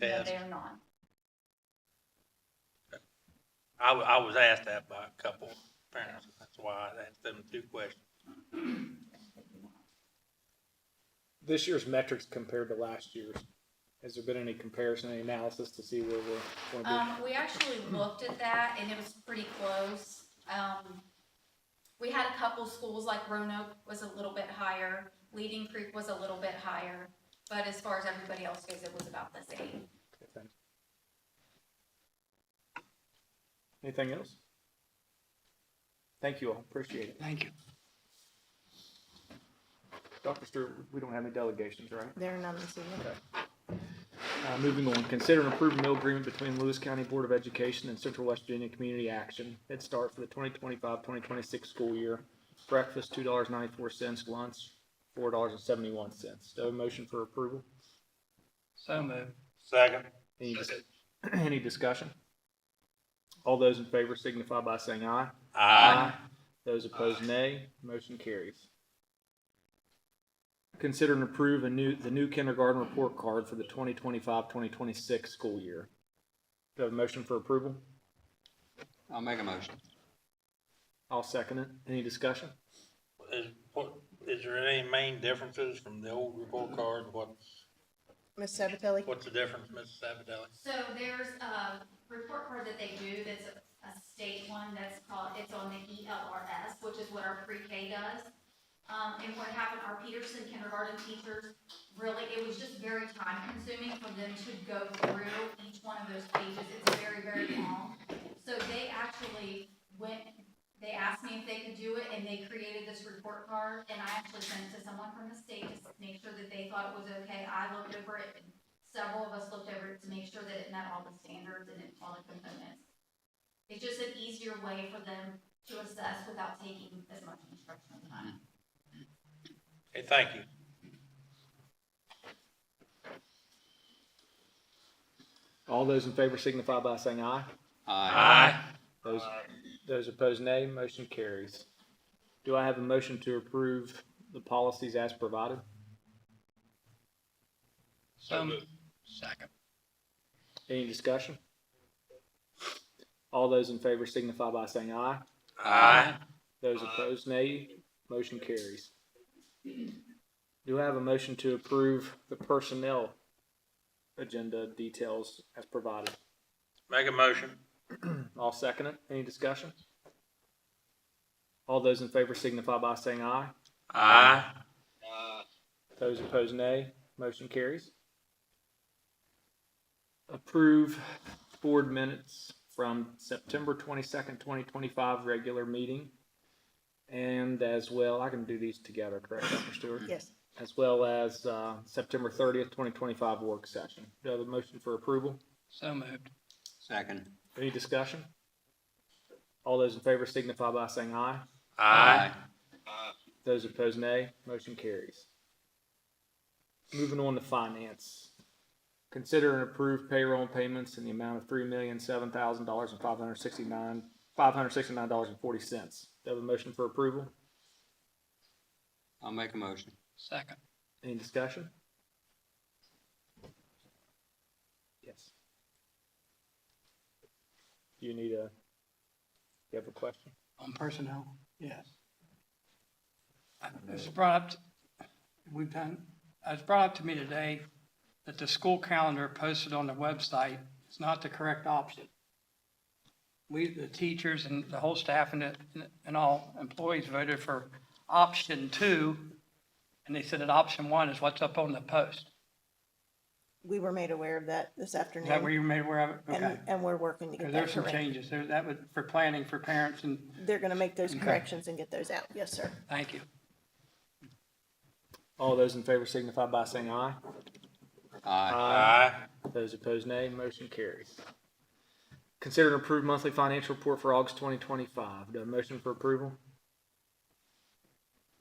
No, test. they are not. I, wa- I was asked that by a couple parents, that's why I asked them two questions. this year's metrics compared to last year's? Has there been any comparison, any analysis to see where we're going to Um, we actually looked at that and it was pretty close. Um, we had a couple schools, like Roanoke was a little bit higher, Leading Creek was a little bit higher, but as far as everybody else goes, it was about the same. be? Okay, thanks. Anything else? Thank you all, appreciate it. Thank you. Dr. Stewart, we don't have any delegations, right? There are none this evening. Uh, moving on, consider and approve a meal agreement between Lewis County Board of Education and Central West Virginia Community Action. Head Start for the 2025-2026 school year. Breakfast, two dollars ninety-four cents, lunch, four dollars and seventy-one cents. Do I have a motion for approval? So moved. Second. Any, dis- any discussion? All those in favor signify by saying aye. Aye. Those opposed, nay. Motion carries. Consider and approve a new, the new kindergarten report card for the 2025-2026 school year. Do I have a motion for approval? I'll make a motion. I'll second it. Any discussion? Is, what, is there any main differences from the old report card? What's, Ms. Sabatelli? what's the difference, Mrs. Sabatelli? So there's a report card that they do that's a state one that's called, it's on the E ELRS, which is what our pre-K does. Um, and what happened, our Peterson kindergarten teachers, really, it was just very time consuming for them to go through each one of those pages. It's very, very long. So they actually went, they asked me if they could do it and they created this report card. And I actually sent it to someone from the state to make sure that they thought it was okay. I looked over it and several of us looked over it to make sure that it met all the standards and it all the components. It's just an easier way for them to assess without taking as much instructional time. Hey, thank you. All those in favor signify by saying aye. Aye. Those, those opposed, nay. Motion carries. Do I have a motion to approve the policies as provided? So moved. Second. Any discussion? All those in favor signify by saying aye. Aye. Those opposed, nay. Motion carries. Do I have a motion to approve the personnel agenda details as provided? Make a motion. I'll second it. Any discussion? All those in favor signify by saying aye. Aye. Those opposed, nay. Motion carries. Approve board minutes from September twenty-second, twenty twenty-five regular meeting. And as well, I can do these together, correct, Dr. Stewart? Yes. As well as, uh, September thirtieth, twenty twenty-five work session. Do I have a motion for approval? So moved. Second. Any discussion? All those in favor signify by saying aye. Aye. Those opposed, nay. Motion carries. Moving on to finance. Consider and approve payroll payments in the amount of three million, seven thousand dollars and five hundred sixty-nine, five hundred sixty-nine dollars and forty cents. Do I have a motion for approval? I'll make a motion. Second. Any discussion? Yes. Do you need a, you have a question? On personnel? Yes. Uh, It's brought up, we've done, it's brought up to me today that the school calendar posted on the website is not the correct option. We, the teachers and the whole staff and, the- and all employees voted for option two, and they said that option one is what's up on the post. We were made aware of that this Is that where afternoon, you made aware of it? and, Okay. and we're working to get that There's some correct. changes. There, that would, for planning for parents and, They're gonna make those corrections and get those out. Yes, sir. thank you. All those in favor signify by saying aye. Aye. Those opposed, nay. Motion carries. Consider and approve monthly financial report for August twenty twenty-five. Do I have a motion for approval?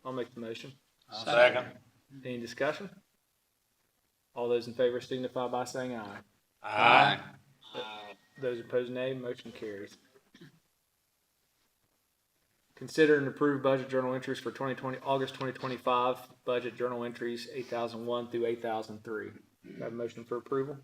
I'll make the motion. Second. Any discussion? All those in favor signify by saying aye. Aye. Those opposed, nay. Motion carries. Consider and approve budget journal entries for twenty twenty, August twenty twenty-five, budget journal entries eight thousand one through eight thousand three. Do I have a motion for approval?